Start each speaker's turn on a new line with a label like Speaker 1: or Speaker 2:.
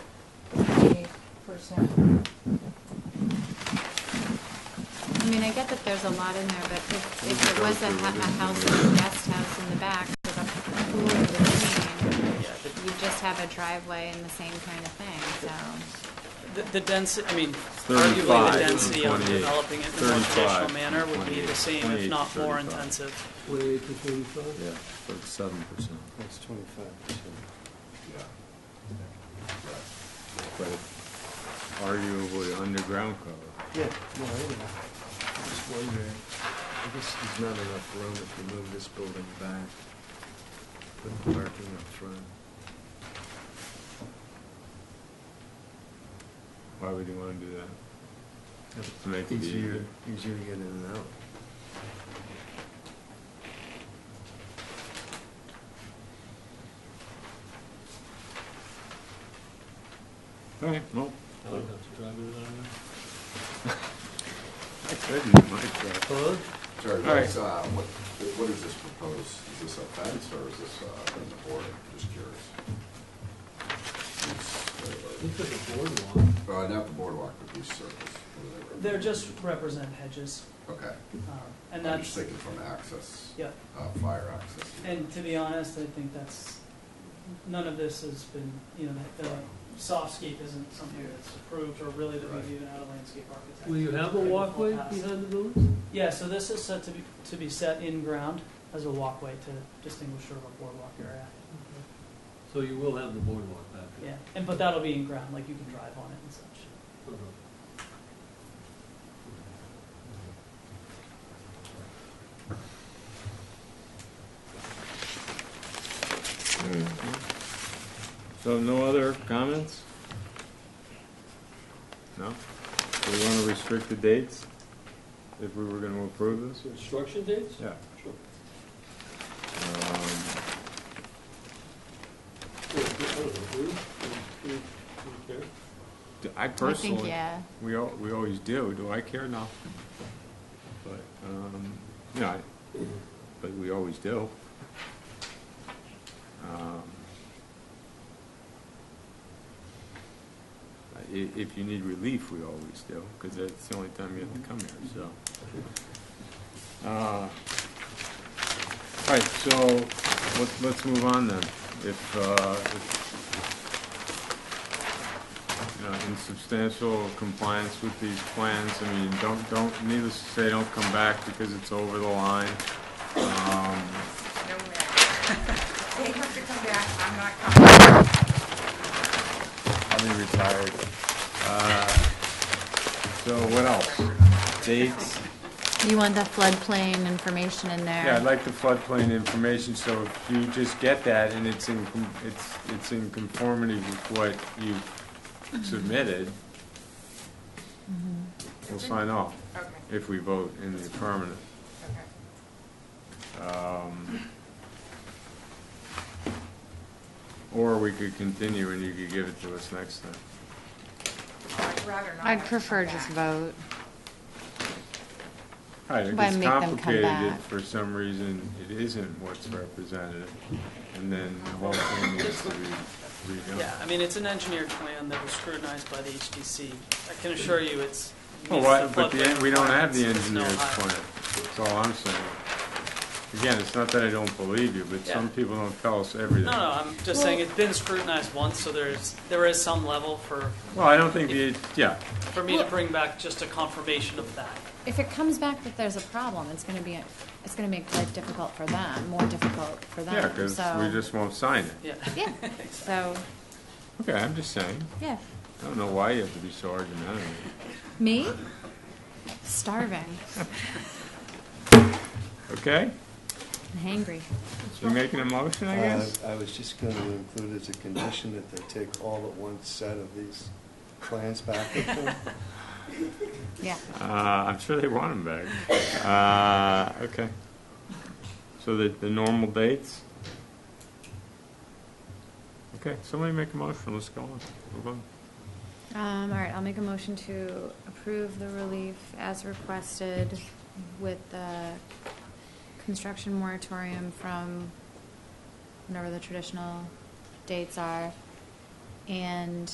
Speaker 1: percent. I mean, I get that there's a lot in there, but if, if it was a, ha- a house, a guest house in the back with a pool in between,
Speaker 2: Yeah, the-
Speaker 1: you just have a driveway and the same kind of thing, so.
Speaker 2: The, the density, I mean, arguably the
Speaker 3: 35,
Speaker 2: density of
Speaker 3: 28,
Speaker 2: developing it in a more
Speaker 3: 35,
Speaker 2: traditional manner would be the same, if
Speaker 3: 28,
Speaker 2: not more
Speaker 3: 35.
Speaker 2: intensive.
Speaker 4: Twenty-eight to thirty-five?
Speaker 3: Yeah, thirty-seven percent.
Speaker 4: That's twenty-five percent.
Speaker 3: But arguably underground cover.
Speaker 4: Yeah, no, I know. I'm just wondering, I guess there's not enough room if you move this building back, put the parking up front.
Speaker 3: Why would you wanna do that?
Speaker 4: Have
Speaker 3: To make it
Speaker 4: Easier,
Speaker 3: easier.
Speaker 4: easier to get in and out.
Speaker 3: All right, well,
Speaker 5: I don't have to drive it on
Speaker 3: I said you might, uh,
Speaker 4: Hello?
Speaker 6: Sorry,
Speaker 2: All right.
Speaker 6: guys, uh, what, what is this proposed, is this a fence or is this, uh, in the board, just curious?
Speaker 5: Look at the boardwalk.
Speaker 6: Uh, not the boardwalk, but these circles. what do they
Speaker 2: They're
Speaker 6: represent?
Speaker 2: just represent hedges,
Speaker 6: Okay,
Speaker 2: um, and
Speaker 6: I'm just
Speaker 2: that's,
Speaker 6: thinking from access,
Speaker 2: yeah,
Speaker 6: uh, fire access.
Speaker 2: and to be honest, I think that's, none of this has been, you know, the, the softscape isn't something that's approved or really that we've even had a landscape architect.
Speaker 5: Will you have a
Speaker 2: Kind of
Speaker 5: walkway
Speaker 2: pass.
Speaker 5: behind the buildings?
Speaker 2: Yeah, so this is set to be, to be set in ground as a walkway to distinguish sort of a boardwalk area,
Speaker 5: So you will have the boardwalk back
Speaker 2: yeah,
Speaker 5: there?
Speaker 2: and, but that'll be in ground, like you can drive on it and such.
Speaker 5: Yeah.
Speaker 3: so no other comments? No? Do we wanna restrict the dates if we were gonna approve this?
Speaker 5: Construction dates?
Speaker 3: Yeah.
Speaker 5: Sure.
Speaker 3: Um,
Speaker 5: Yeah, I don't know, do you? Do you- do you care?
Speaker 3: Do I
Speaker 1: I think,
Speaker 3: personally,
Speaker 1: yeah,
Speaker 3: we, al- we always do, do I care? No. But, um, you know, I- but we always do. Um, I- i- if you need relief, we always do, because that's the only time you have to come here, so. Uh, All right, so let's, let's move on then. If, uh, if you know, in substantial compliance with these plans. I mean, don't, don't, needless to say, don't come back because it's over the line.
Speaker 7: No
Speaker 3: Um,
Speaker 7: way. They have to come back, I'm not coming.
Speaker 3: I'll be retired. Uh, So what else? Dates?
Speaker 1: you want the floodplain information in there.
Speaker 3: Yeah, I'd like the floodplain information, so if you just get that and it's in, com- it's, it's in conformity with what you submitted, we'll sign off
Speaker 7: Okay,
Speaker 3: if we vote in the affirmative.
Speaker 7: okay.
Speaker 3: Um, Or we could continue and you could give it to us next time.
Speaker 7: I'd rather not.
Speaker 1: I'd
Speaker 7: have to
Speaker 1: prefer
Speaker 7: come
Speaker 1: just
Speaker 7: back.
Speaker 1: vote.
Speaker 3: Right, if
Speaker 1: Why
Speaker 3: it's
Speaker 1: make them come
Speaker 3: complicated, if
Speaker 1: back?
Speaker 3: for some reason it isn't what's represented, and then the whole thing needs to be
Speaker 2: Yeah,
Speaker 3: redone.
Speaker 2: I mean, it's an engineered plan that was scrutinized by the HDC. I can assure you it's.
Speaker 3: Well,
Speaker 2: meets
Speaker 3: why,
Speaker 2: the
Speaker 3: but the,
Speaker 2: floodplain
Speaker 3: en- we don't have the
Speaker 2: requirements. There's no
Speaker 3: engineer's
Speaker 2: high-
Speaker 3: plan, that's all I'm saying. Again, it's not that I don't believe you, but some
Speaker 2: Yeah.
Speaker 3: people don't tell us everything.
Speaker 2: No, no, I'm just saying it's been scrutinized once, so there's, there is some level for,
Speaker 3: Well, I don't think the, yeah,
Speaker 2: for me to bring back just a confirmation of that.
Speaker 1: If it comes back that there's a problem, it's gonna be, it's gonna make life difficult for them, more difficult for
Speaker 3: yeah,
Speaker 1: them,
Speaker 3: because
Speaker 1: so.
Speaker 3: we just won't sign it.
Speaker 2: Yeah.
Speaker 1: Yeah, so,
Speaker 3: Okay, I'm just saying.
Speaker 1: yeah.
Speaker 3: I don't know why you have to be so argumentative.
Speaker 1: Me? Starving,
Speaker 3: Okay?
Speaker 1: hangry.
Speaker 3: You're making a motion, I guess?
Speaker 4: Uh, I was just going to include as a condition that they take all but one set of these plans back with them.
Speaker 1: Yeah.
Speaker 3: Uh, I'm sure they want him back. Uh, okay. So the, the normal dates? Okay, somebody make a motion, let's go on, move on.
Speaker 1: Um, all right, I'll make a motion to approve the relief as requested with the construction moratorium from whenever the traditional dates are. And